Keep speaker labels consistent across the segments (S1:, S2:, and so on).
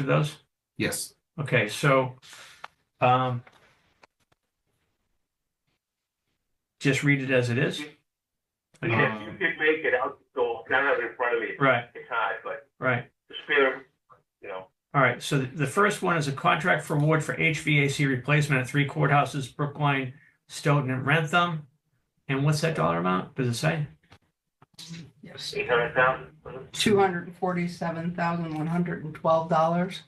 S1: do those?
S2: Yes,
S1: Okay, so, um, just read it as it is?
S3: If you
S1: Um,
S3: could make it out the door, I don't have it in front of me,
S1: Right,
S3: it's hard, but
S1: right.
S3: the spirit, you know,
S1: All right, so the- the first one is a contract for award for HVAC replacement at three courthouses, Brookline, Stoughton, and Rantham. And what's that dollar amount? Does it say?
S4: Yes,
S3: eight hundred thousand.
S4: two hundred and forty-seven thousand, one hundred and twelve dollars.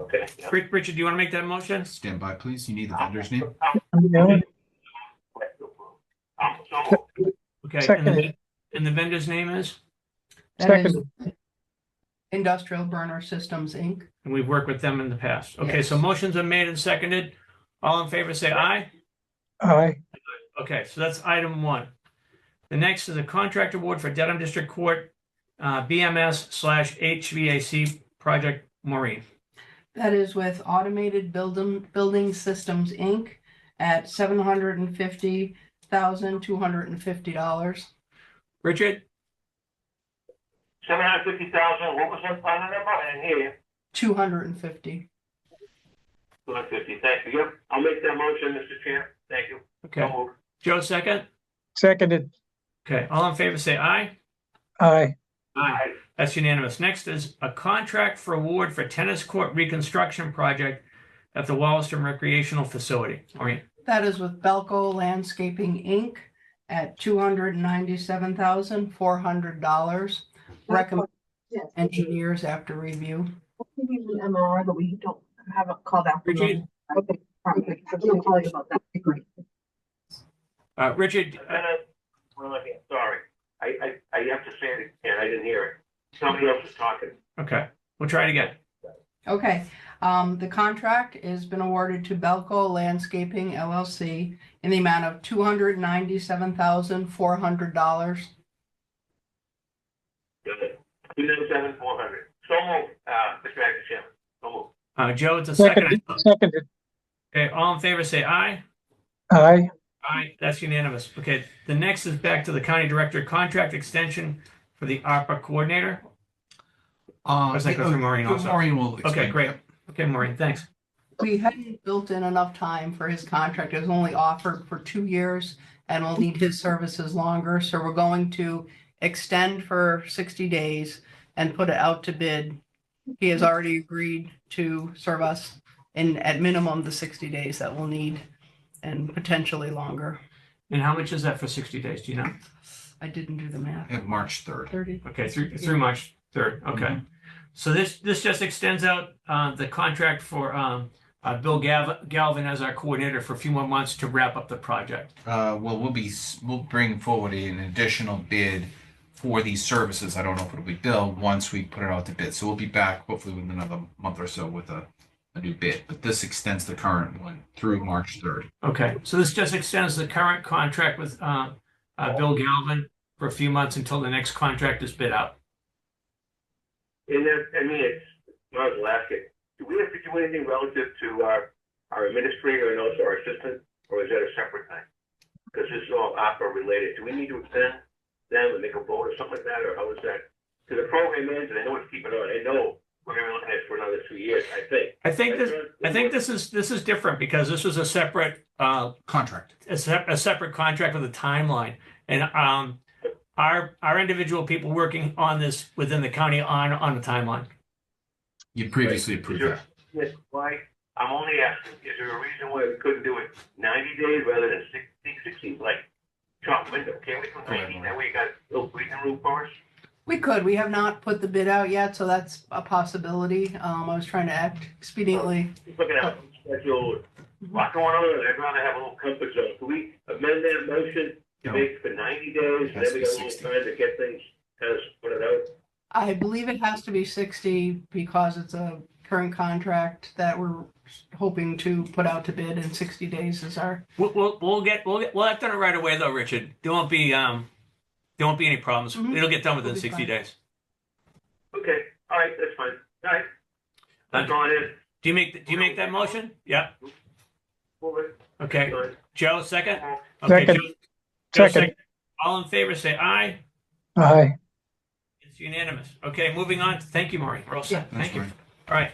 S3: Okay. yeah.
S1: Rick, Richard, do you want to make that motion?
S2: stand by, please. You need
S1: Ah.
S2: the vendor's name.
S3: Um, so,
S1: Okay, and the,
S5: Seconded.
S1: and the vendor's name is,
S4: That is Industrial Burner Systems, Inc.
S1: and we've worked with them in the past. Okay, so
S4: Yes.
S1: motions are made and seconded. All in favor, say aye.
S5: Aye,
S1: Okay, so that's item one. The next is a contract award for Dedham District Court, uh, BMS slash HVAC Project Maureen.
S4: That is with Automated Building, Building Systems, Inc. at seven hundred and fifty thousand, two hundred and fifty dollars.
S1: Richard,
S3: seven hundred fifty thousand, what was that final number? I didn't hear you.
S4: Two hundred and fifty.
S3: Two hundred fifty, thank you. Yep, I'll make that motion, Mr. Chair. Thank you.
S1: okay,
S3: So moved.
S1: Joe second?
S5: seconded,
S1: Okay, all in favor, say aye.
S5: aye,
S1: Aye. That's unanimous. Next is a contract for award for tennis court reconstruction project at the Wallaston Recreational Facility. Maureen,
S4: That is with Belco Landscaping, Inc. at two hundred and ninety-seven thousand, four hundred dollars. Recommend
S6: Yes,
S4: engineers after review.
S6: maybe the MRI, but we don't have it called out. for
S1: Richard?
S6: them. Okay, probably. I'm gonna call you about that. Great.
S1: uh, Richard,
S3: And
S1: uh,
S3: then, well, I can't- sorry, I, I, I have to say it again, I didn't hear it. Somebody else was talking.
S1: okay, we'll try it again.
S4: Okay, um, the contract has been awarded to Belco Landscaping LLC in the amount of two hundred ninety-seven thousand, four hundred dollars.
S3: Two nine seven four hundred. So moved, uh, Mr. Acting Chairman, so moved.
S1: Uh, Joe, it's a second.
S5: seconded, seconded,
S1: Okay, all in favor, say aye.
S5: aye,
S1: Aye, that's unanimous. Okay, the next is back to the county director contract extension for the ARPA coordinator.
S2: Uh,
S1: was like,
S2: yeah,
S1: go through
S2: oh,
S1: Maureen
S2: go
S1: also.
S2: Maureen will explain.
S1: great.
S2: Yep.
S1: Okay, Maureen, thanks.
S4: We hadn't built in enough time for his contract. It was only offered for two years and we'll need his services longer, so we're going to extend for sixty days and put it out to bid. He has already agreed to serve us in, at minimum, the sixty days that we'll need and potentially longer.
S1: And how much is that for sixty days? Do you know?
S4: I didn't do the math.
S2: At March third.
S4: Thirty.
S1: Okay, through, through March third. Okay. So this, this just extends out, uh, the contract for, um, uh, Bill Gav- Galvin as our coordinator for a few more months to wrap up the project.
S2: Uh, well, we'll be, s- we'll bring forward an additional bid for these services. I don't know if it'll be Bill once we put it out to bid. So we'll be back hopefully within another month or so with a, a new bid, but this extends the current one through March third.
S1: Okay, so this just extends the current contract with, uh, uh, Bill Galvin for a few months until the next contract is bid out.
S3: And then, I mean, it's, I was asking, do we have to do anything relative to our, our administrator and also our assistant? Or is that a separate thing? Because this is all opera related. Do we need to extend them and make a vote or something like that, or how is that? To the program ends, and I know it's keeping on. I know we're gonna be looking at it for another two years, I think.
S1: I think this, I think this is, this is different because this is a separate, uh,
S2: Contract.
S1: a sep- a separate contract with a timeline. And, um, our, our individual people working on this within the county on, on a timeline.
S2: You previously approved that.
S3: Yes, why? I'm only asking, is there a reason why we couldn't do it ninety days rather than sixty, sixty, like, chop window? Can't we do ninety? That way you got a little breathing room for us?
S4: We could, we have not put the bid out yet, so that's a possibility. Um, I was trying to act expediently.
S3: looking at schedule, lot going on, I'd rather have a little comfort zone. Can we amend that motion to
S2: No.
S3: make for ninety days, and
S2: Has
S3: then
S2: to
S3: we
S2: be
S3: got a little
S2: 60.
S3: time to get things, kind of put it out?
S4: I believe it has to be sixty because it's a current contract that we're hoping to put out to bid in sixty days is our,
S1: We'll, we'll, we'll get, we'll get, we'll have done it right away though, Richard. There won't be, um, there won't be any problems.
S4: Mhm.
S1: It'll get done within
S4: It'll be
S1: sixty
S4: fine.
S1: days.
S3: Okay, all right, that's fine, all right. That's all it is,
S1: Do you make, th- do you make that motion? Yeah,
S3: move it,
S1: okay.
S3: Go ahead.
S1: Joe, second?
S3: Move.
S1: Okay,
S5: Second.
S1: Joe- Joe,
S5: seconded,
S1: All in favor, say aye.
S5: aye.
S1: It's unanimous. Okay, moving on. Thank you, Maureen. We're all set.
S2: Thanks,
S1: Thank you.
S2: Maureen.
S1: All right.